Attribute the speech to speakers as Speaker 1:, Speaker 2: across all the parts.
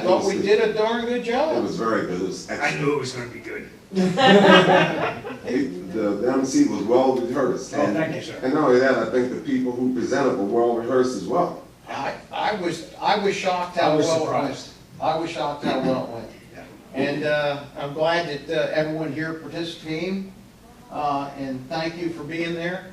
Speaker 1: thought we did a darn good
Speaker 2: It
Speaker 1: job.
Speaker 2: was very good, it was
Speaker 3: I
Speaker 2: excellent.
Speaker 3: knew it was gonna be good.
Speaker 2: It- The the MC was well rehearsed.
Speaker 3: Oh,
Speaker 2: and-
Speaker 3: thank you, sir.
Speaker 2: And not only that, I think the people who presented were well rehearsed as well.
Speaker 1: I, I was, I was shocked how
Speaker 3: I was
Speaker 1: well it went.
Speaker 3: surprised.
Speaker 1: I was shocked how well it went.
Speaker 3: Yeah.
Speaker 1: And uh, I'm glad that uh, everyone here participated, Uh, and thank you for being there.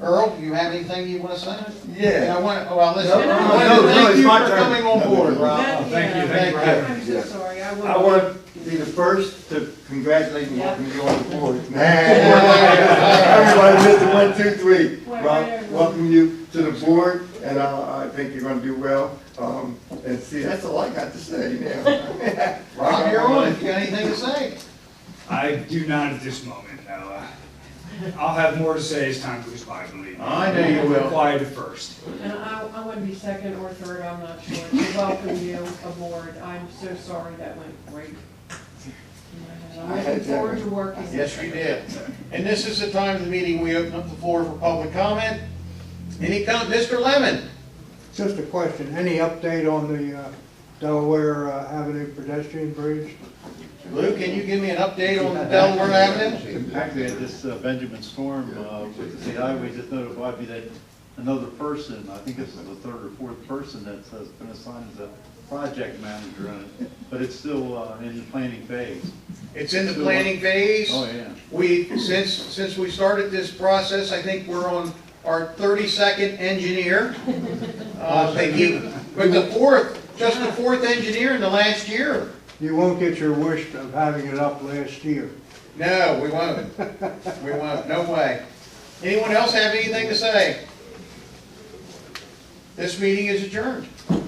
Speaker 1: Earl, do you have anything you want to say? And I
Speaker 4: Yeah.
Speaker 1: want, oh, well, listen,
Speaker 4: No, no,
Speaker 1: I want to
Speaker 4: no, no,
Speaker 1: thank
Speaker 4: it's
Speaker 1: you
Speaker 4: my
Speaker 1: for
Speaker 4: turn.
Speaker 1: coming on board, Rob.
Speaker 3: Thank you,
Speaker 1: Thank
Speaker 3: thank you.
Speaker 1: you.
Speaker 3: for
Speaker 4: I'm so
Speaker 2: Yes.
Speaker 4: sorry, I I want, want to be the first to congratulate and welcome you on the board. Everybody,
Speaker 1: Yeah.
Speaker 4: Mr. One, Two, Three.
Speaker 5: Right,
Speaker 4: Rob,
Speaker 5: right, right.
Speaker 4: welcome you to the board, and uh, I, I think you're going to do well. Um, and see, that's all I got to say now.
Speaker 1: Rob, you're on, if you got anything to say.
Speaker 3: I do not at this moment, no. Uh, I'll have more to say as time goes by, believe me.
Speaker 4: I know you will.
Speaker 3: Quiet at first.
Speaker 5: and I, I want to be second or third, I'm not sure, to welcome you aboard. I'm so sorry, that went great. And I'm looking forward to working.
Speaker 1: Yes, we did. And this is the time of the meeting, we open up the floor for public comment. Any com, Mr. Lemon?
Speaker 6: Just a question, any update on the uh, Delaware uh, Avenue pedestrian bridge?
Speaker 1: Lou, can you give me an update on the Delaware Avenue?
Speaker 7: Actually, at this uh, Benjamin Storm, uh, with the highway just notified me that another person, I think this is the third or fourth person that's has been assigned as a project manager on it, but it's still uh, in the planning phase.
Speaker 1: It's in the planning phase.
Speaker 7: Oh, yeah.
Speaker 1: We, since, since we started this process, I think we're on our thirty-second engineer. Uh, they keep, but the fourth, just the fourth engineer in the last year.
Speaker 6: You won't get your wish of having it up last year.
Speaker 1: No, we won't. We won't, no way. Anyone else have anything to say? This meeting is adjourned.